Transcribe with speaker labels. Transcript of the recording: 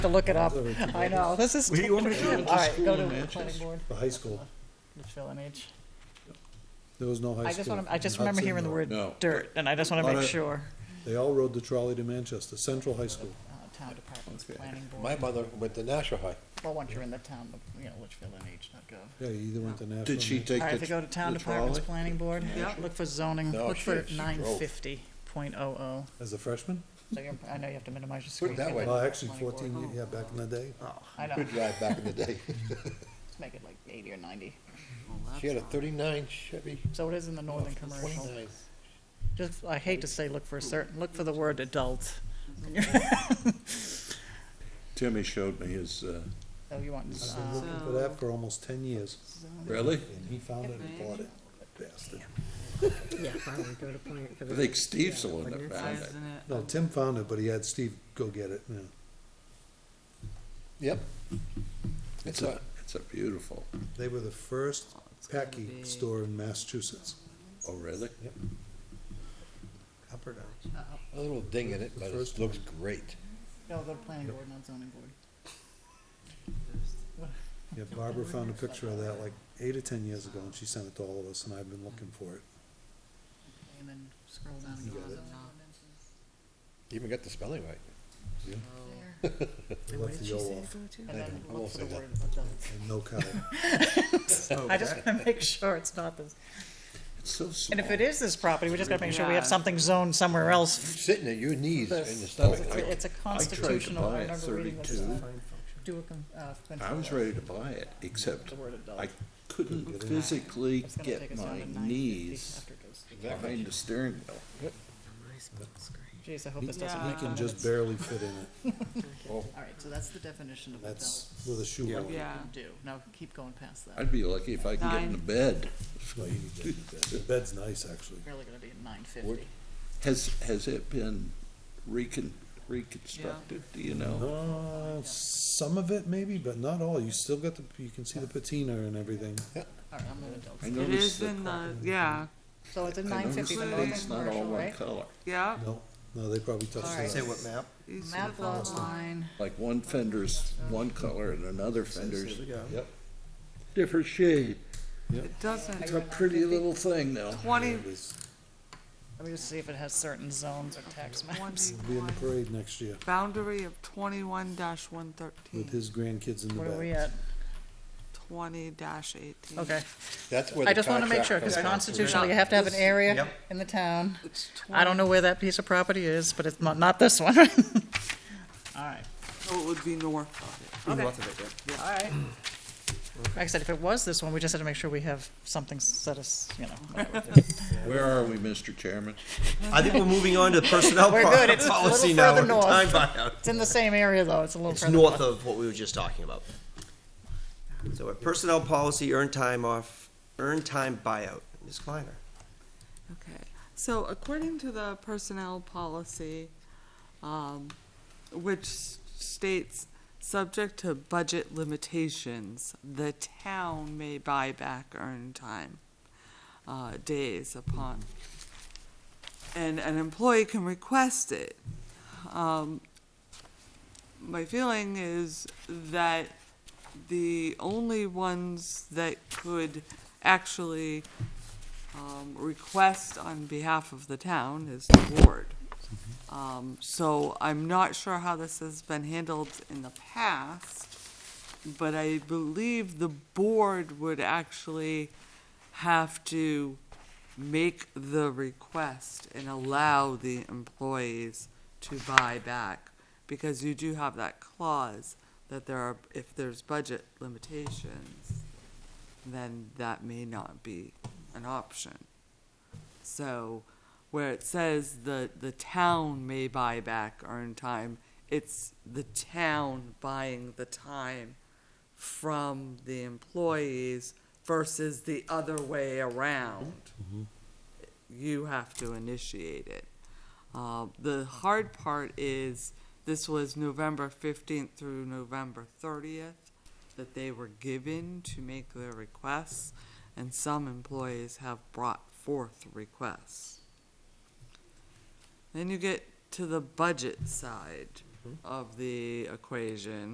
Speaker 1: to look it up.
Speaker 2: Those are-
Speaker 1: I know, this is.
Speaker 3: What do you want me to do?
Speaker 1: All right, go to
Speaker 3: School
Speaker 1: the planning
Speaker 3: matches.
Speaker 1: board,
Speaker 2: The high school,
Speaker 1: the fill an age.
Speaker 2: there was no high school.
Speaker 1: I just want to, I just
Speaker 2: in
Speaker 1: remember
Speaker 2: Hudson,
Speaker 1: hearing the
Speaker 2: though.
Speaker 1: word
Speaker 3: No.
Speaker 1: dirt, and I just want
Speaker 3: On
Speaker 1: to make
Speaker 3: a-
Speaker 1: sure.
Speaker 2: They all rode the trolley to Manchester, Central High School.
Speaker 1: Uh, Town departments,
Speaker 3: Okay.
Speaker 1: planning
Speaker 4: My
Speaker 1: board,
Speaker 4: mother went to Nashua High.
Speaker 1: well, once you're in the town, you know, litchfieldnh.gov.
Speaker 2: Yeah, you either went to Nashville.
Speaker 3: Did she
Speaker 2: or-
Speaker 3: take
Speaker 1: All right, if
Speaker 3: the,
Speaker 1: you go to town
Speaker 3: the
Speaker 1: departments,
Speaker 3: trolley?
Speaker 1: planning board, look for zoning,
Speaker 4: No,
Speaker 1: look for
Speaker 4: she- she
Speaker 1: nine
Speaker 4: drove.
Speaker 1: fifty point oh oh.
Speaker 2: As a freshman?
Speaker 1: So you're, I know you have to minimize your screen.
Speaker 4: that
Speaker 1: Get
Speaker 4: way.
Speaker 1: rid of
Speaker 2: Well,
Speaker 1: the
Speaker 2: actually
Speaker 1: planning board.
Speaker 2: fourteen, ye- yeah, back in the day.
Speaker 1: I know,
Speaker 4: Good drive back in the day.
Speaker 1: let's make it like eighty or ninety.
Speaker 4: She had a thirty-nine Chevy,
Speaker 1: So it is in the northern commercial.
Speaker 4: twenty-nine.
Speaker 1: Just, I hate to say look for a certain, look for the word adult.
Speaker 3: Timmy showed me his, uh,
Speaker 1: So you want,
Speaker 2: I've been
Speaker 1: uh,
Speaker 2: looking for that for almost ten years,
Speaker 3: really?
Speaker 2: and he found it and bought it, bastard.
Speaker 5: Yeah, finally go to plant for
Speaker 3: I
Speaker 5: the.
Speaker 3: think Steve's the one
Speaker 5: Like
Speaker 3: that
Speaker 5: it
Speaker 3: found it.
Speaker 5: says-
Speaker 2: No, Tim found it, but he had Steve go get it, yeah.
Speaker 4: Yep.
Speaker 3: It's
Speaker 4: It's
Speaker 3: a,
Speaker 4: a,
Speaker 3: it's a beautiful,
Speaker 2: They were the first packy store in Massachusetts.
Speaker 3: oh, really?
Speaker 2: Up or down?
Speaker 4: a little ding in it, but it
Speaker 2: First
Speaker 4: looks great.
Speaker 1: no, the planning board, not zoning board.
Speaker 2: Yeah, Barbara found a picture of that like eight or ten years ago, and she sent it to all of us, and I've been looking for it.
Speaker 1: And then scroll down and go to zoning.
Speaker 4: You Even got the spelling right.
Speaker 2: I left the O off,
Speaker 1: And then
Speaker 4: I
Speaker 1: look
Speaker 4: will
Speaker 1: for
Speaker 4: say
Speaker 1: the
Speaker 4: that.
Speaker 1: word adult.
Speaker 2: and no cow.
Speaker 1: I just wanna make sure it's not this.
Speaker 3: It's so
Speaker 1: And
Speaker 3: small.
Speaker 1: if it is this property, we just gotta make sure we have something zoned somewhere else.
Speaker 4: Sitting at your knees in the
Speaker 1: This-
Speaker 3: Oh,
Speaker 4: stomach.
Speaker 1: It's a- it's a constitutional,
Speaker 3: buy
Speaker 1: I
Speaker 3: it
Speaker 1: remember reading this.
Speaker 3: 32.
Speaker 1: uh, Do a, con- uh.
Speaker 3: I was ready to buy it, except
Speaker 1: The word adult.
Speaker 3: I couldn't physically
Speaker 1: It's gonna take
Speaker 3: get
Speaker 1: us down
Speaker 3: my
Speaker 1: to 950
Speaker 3: knees
Speaker 1: after it goes through.
Speaker 3: behind the steering wheel.
Speaker 1: Jeez, I hope
Speaker 2: He
Speaker 1: this doesn't
Speaker 2: he
Speaker 1: make
Speaker 2: can
Speaker 1: any
Speaker 2: just
Speaker 1: sense.
Speaker 2: barely fit in it,
Speaker 1: All right, so that's the definition of adult.
Speaker 2: that's with a shoe on.
Speaker 1: You
Speaker 6: Yeah.
Speaker 1: can do, now keep going past that.
Speaker 3: I'd be lucky if I could get in the bed.
Speaker 2: No, you need that. The bed's nice, actually.
Speaker 1: Really gonna be at nine fifty.
Speaker 3: Has, has it been recon, reconstructed, do you know?
Speaker 2: Uh, some of it maybe, but not all, you still got the, you can see the patina and everything.
Speaker 1: All right, I'm an adult.
Speaker 3: I
Speaker 6: It
Speaker 3: noticed
Speaker 6: is
Speaker 3: that.
Speaker 6: in the, yeah,
Speaker 1: So it's at
Speaker 3: I
Speaker 1: nine fifty
Speaker 3: noticed
Speaker 1: for
Speaker 3: the
Speaker 6: Northern
Speaker 3: bed's
Speaker 1: northern
Speaker 3: not all
Speaker 1: commercial,
Speaker 3: one
Speaker 1: right?
Speaker 3: color,
Speaker 6: yeah.
Speaker 2: No, no, they probably
Speaker 1: All
Speaker 2: touched
Speaker 1: right.
Speaker 2: it.
Speaker 1: Say
Speaker 2: what map?
Speaker 6: East
Speaker 1: Map lot
Speaker 6: Norfolk line.
Speaker 1: line,
Speaker 3: like one fender's one color and another fender's
Speaker 2: Yep,
Speaker 3: different shade.
Speaker 6: It doesn't,
Speaker 3: It's a pretty little thing now.
Speaker 6: twenty,
Speaker 2: it was,
Speaker 1: let me just see if it has certain zones or tax maps.
Speaker 2: it'll be in
Speaker 6: twenty-one,
Speaker 2: the parade next year
Speaker 6: boundary of twenty-one dash one
Speaker 2: with
Speaker 6: thirteen,
Speaker 2: his grandkids in the
Speaker 1: What are we
Speaker 2: back.
Speaker 1: at?
Speaker 6: twenty dash eighteen.
Speaker 1: Okay,
Speaker 4: That's where the
Speaker 1: I just wanna make
Speaker 4: contract
Speaker 1: sure, cause
Speaker 4: comes from.
Speaker 1: constitutionally, you have to have an area in the town.
Speaker 6: It's
Speaker 1: I don't know where that piece of property is, but it's not, not this one. All right,
Speaker 6: So Oh, it would be north of
Speaker 1: okay. All right. Like I said, if it was this one, we just had to make sure we have something set us, you know. whatever.
Speaker 3: Where are we, Mr. Chairman?
Speaker 7: I think we're moving on to the personnel
Speaker 1: We're good.
Speaker 7: po-
Speaker 1: It's a little
Speaker 7: policy now.
Speaker 1: further
Speaker 7: with the
Speaker 1: north.
Speaker 7: time buyout.
Speaker 1: It's in the same area, though, it's a little
Speaker 7: It's
Speaker 1: further.
Speaker 7: north of what we were just talking about. So our personnel policy, earn time off, earn time buyout. Ms. Kleiner,
Speaker 6: it. Okay, so according to the personnel policy, um, which states, subject to budget limitations, the town may buy back earned time, uh, days upon, and an employee can request it. Um, my feeling is that the only ones that could actually, um, request on behalf of the town is the board. Um, so I'm not sure how this has been handled in the past, but I believe the board would actually have to make the request and allow the employees to buy back, because you do have that clause that there are, if there's budget limitations, then that may not be an option. So where it says the, the town may buy back earned time, it's the town buying the time from the employees versus the other way around. You have to initiate it. Uh, the hard part is, this was November fifteenth through November thirtieth that they were given to make their requests, and some employees have brought forth requests. Then you get to the budget side. of the equation.